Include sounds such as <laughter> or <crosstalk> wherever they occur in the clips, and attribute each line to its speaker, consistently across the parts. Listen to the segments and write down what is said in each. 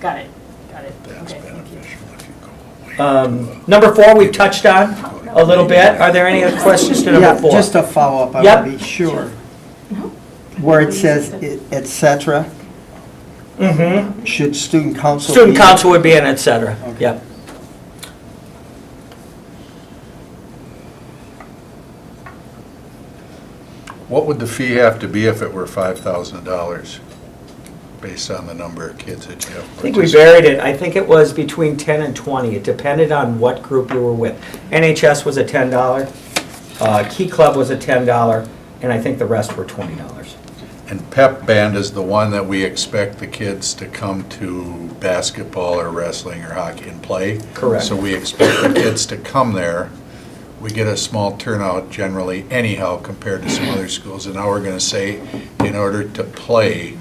Speaker 1: Got it, got it.
Speaker 2: That's
Speaker 1: Okay, thank you.
Speaker 2: beneficial if you go away.
Speaker 3: Um, Number four, we've touched on a little bit. Are there any other questions to
Speaker 4: Yeah,
Speaker 3: number four?
Speaker 4: just a follow-up, I
Speaker 3: Yep.
Speaker 4: want to be sure. Uh-huh. Where it says i- et cetera,
Speaker 3: Mhm.
Speaker 4: should student council be?
Speaker 3: Student council would be in, et cetera.
Speaker 4: Okay.
Speaker 3: Yep.
Speaker 2: What would the fee have to be if it were five thousand dollars, based on the number of kids that you have?
Speaker 3: I think we buried it. I think it was between 10 and 20. It depended on what group you were with. NHS was a $10, uh, Key Club was a $10, and I think the rest were $20.
Speaker 2: And pep band is the one that we expect the kids to come to basketball or wrestling or hockey and play.
Speaker 3: Correct.
Speaker 2: So we expect the kids to come there. We get a small turnout generally anyhow compared to some other schools. And now we're going to say, in order to play,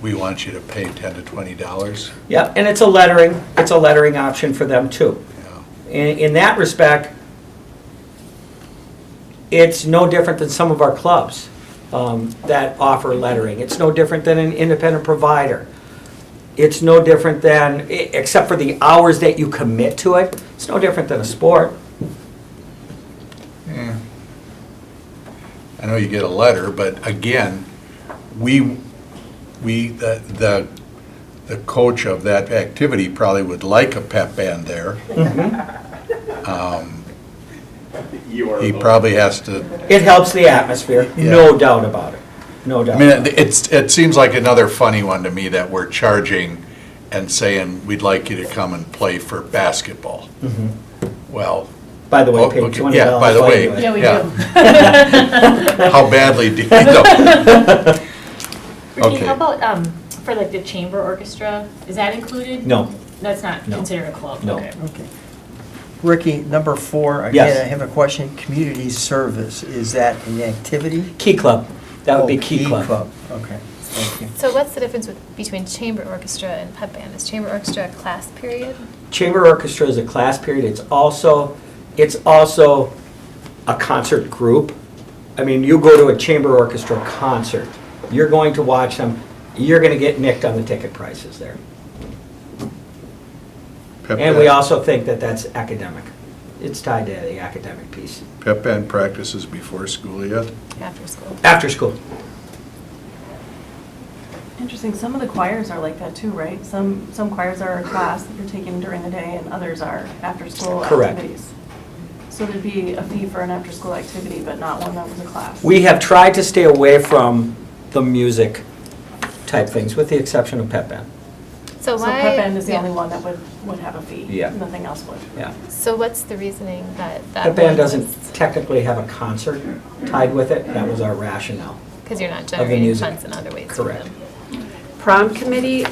Speaker 2: we want you to pay ten to twenty dollars.
Speaker 3: Yeah, and it's a lettering, it's a lettering option for them too. In, in that respect, it's no different than some of our clubs um, that offer lettering. It's no different than an independent provider. It's no different than, e- except for the hours that you commit to it, it's no different than a sport.
Speaker 2: I know you get a letter, but again, we, we, the, the the coach of that activity probably would like a pep band there.
Speaker 3: Mm-hmm.
Speaker 2: Um, He probably has to,
Speaker 3: It helps the atmosphere, no doubt about it, no
Speaker 2: I
Speaker 3: doubt.
Speaker 2: mean, it- it's, it seems like another funny one to me that we're charging and saying, we'd like you to come and play for basketball.
Speaker 3: Mm-hmm.
Speaker 2: Well,
Speaker 3: By the way,
Speaker 2: Oh,
Speaker 3: paid
Speaker 2: okay,
Speaker 3: $20.
Speaker 2: yeah, by the way.
Speaker 3: anyway.
Speaker 1: Yeah, we
Speaker 3: <laughs>
Speaker 2: Yeah.
Speaker 1: do.
Speaker 2: how badly do you know?
Speaker 1: Ricky,
Speaker 2: Okay.
Speaker 1: how about, um, for like the chamber orchestra, is that included?
Speaker 3: No.
Speaker 1: That's not
Speaker 3: No.
Speaker 1: considered a club?
Speaker 3: No.
Speaker 1: Okay.
Speaker 4: Okay. Ricky, number four,
Speaker 3: Yes.
Speaker 4: again, I have a question. Community service, is that an activity?
Speaker 3: Key Club, that would be
Speaker 4: Oh,
Speaker 3: Key Club.
Speaker 4: Okay, thank you.
Speaker 5: So what's the difference with, between chamber orchestra and pep band? Is chamber orchestra a class period?
Speaker 3: Chamber orchestra is a class period, it's also, it's also a concert group. I mean, you go to a chamber orchestra concert, you're going to watch them, you're gonna get nicked on the ticket prices there. <laughs>
Speaker 2: Pep
Speaker 3: And we
Speaker 2: band-
Speaker 3: also think that that's academic, it's tied to the academic piece.
Speaker 2: Pep band practices before school yet?
Speaker 5: After school.
Speaker 3: After school,
Speaker 6: Interesting, some of the choirs are like that too, right? Some, some choirs are a class that you're taking during the day and others are after-school
Speaker 3: Correct.
Speaker 6: activities. So there'd be a fee for an after-school activity, but not one that was a class.
Speaker 3: we have tried to stay away from the music type things, with the exception of pep band.
Speaker 5: So
Speaker 6: So
Speaker 5: why?
Speaker 6: Pep Band is the
Speaker 5: yeah.
Speaker 6: only one that would, would have a fee.
Speaker 3: Yeah.
Speaker 6: Nothing else would.
Speaker 3: Yeah.
Speaker 5: So what's the reasoning that that?
Speaker 3: Pep band doesn't technically have a concert tied with it, that was our rationale.
Speaker 5: Because you're not
Speaker 3: the
Speaker 5: generating
Speaker 3: music.
Speaker 5: funds in other ways. for
Speaker 3: Correct.
Speaker 5: them.
Speaker 7: prom committee,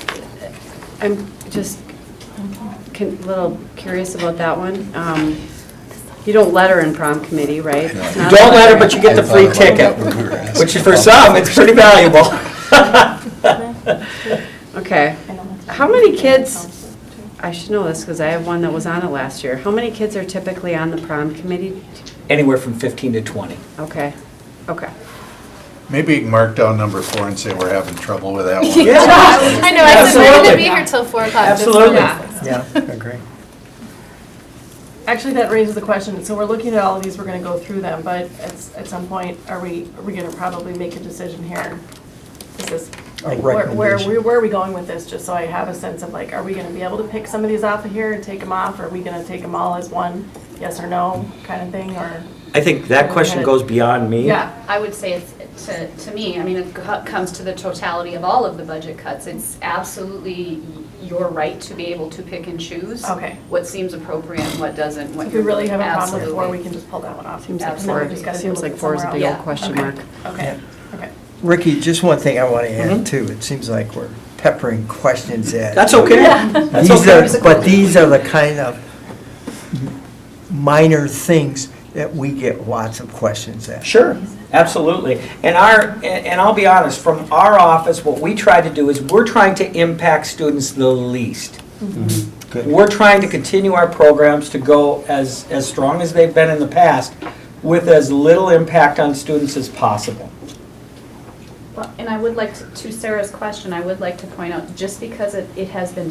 Speaker 7: I'm just a little curious about that one. Um, You don't letter in prom committee, right? It's
Speaker 2: No.
Speaker 7: not a
Speaker 3: Don't letter, but you get the
Speaker 2: I
Speaker 3: free
Speaker 2: thought about
Speaker 3: ticket,
Speaker 2: that when we were asking.
Speaker 3: which is for some, it's pretty valuable.
Speaker 7: Okay.
Speaker 6: I know that's-
Speaker 7: How many kids, I should know this because I have one that was on it last year. How many kids are typically on the prom committee?
Speaker 3: <laughs> Anywhere from 15 to 20.
Speaker 7: Okay, okay.
Speaker 2: Maybe you can mark down number four and say we're having trouble with that one.
Speaker 3: <laughs>
Speaker 5: I know, I said, we're gonna
Speaker 3: Absolutely.
Speaker 5: be here till four o'clock. just for
Speaker 3: Absolutely.
Speaker 5: that.
Speaker 4: Yeah, agree.
Speaker 6: Actually, that raises the question, so we're looking at all of these, we're gonna go through them, but at, s- at some point, are we, are we gonna probably make a decision here? Is this,
Speaker 4: A
Speaker 6: like, where, where,
Speaker 4: recommendation.
Speaker 6: where are we going with this, just so I have a sense of like, are we gonna be able to pick some of these off of here and take them off? Are we gonna take them all as one, yes or no kind of thing, or?
Speaker 3: I think that question goes beyond me.
Speaker 6: Yeah,
Speaker 8: I would say it's, to, to me, I mean, it co- comes to the totality of all of the budget cuts. It's absolutely your right to be able to pick and choose.
Speaker 6: Okay.
Speaker 8: What seems appropriate and what doesn't, what
Speaker 6: if we really have a problem with four,
Speaker 8: Absolutely.
Speaker 6: we can just pull that one off.
Speaker 7: Seems like
Speaker 6: And then we
Speaker 7: four,
Speaker 6: just gotta
Speaker 7: seems
Speaker 6: look
Speaker 7: like
Speaker 6: at
Speaker 7: four is a
Speaker 6: somewhere
Speaker 7: big
Speaker 6: else.
Speaker 7: old question
Speaker 6: Okay.
Speaker 7: mark.
Speaker 6: Okay, okay.
Speaker 4: Ricky, just one thing I want to add too. It seems like we're peppering questions
Speaker 3: Mm-hmm.
Speaker 4: at.
Speaker 3: That's okay. That's
Speaker 4: These
Speaker 3: okay.
Speaker 4: are, but these are the kind of minor things that we get lots of questions at.
Speaker 3: Sure, absolutely. And our, and- and I'll be honest, from our office, what we try to do is we're trying to impact students the least.
Speaker 4: Good.
Speaker 3: We're trying to continue our programs to go as, as strong as they've been in the past with as little impact on students as possible.
Speaker 8: Well, And I would like, to to Sarah's question, I would like to point out, just because it, it has been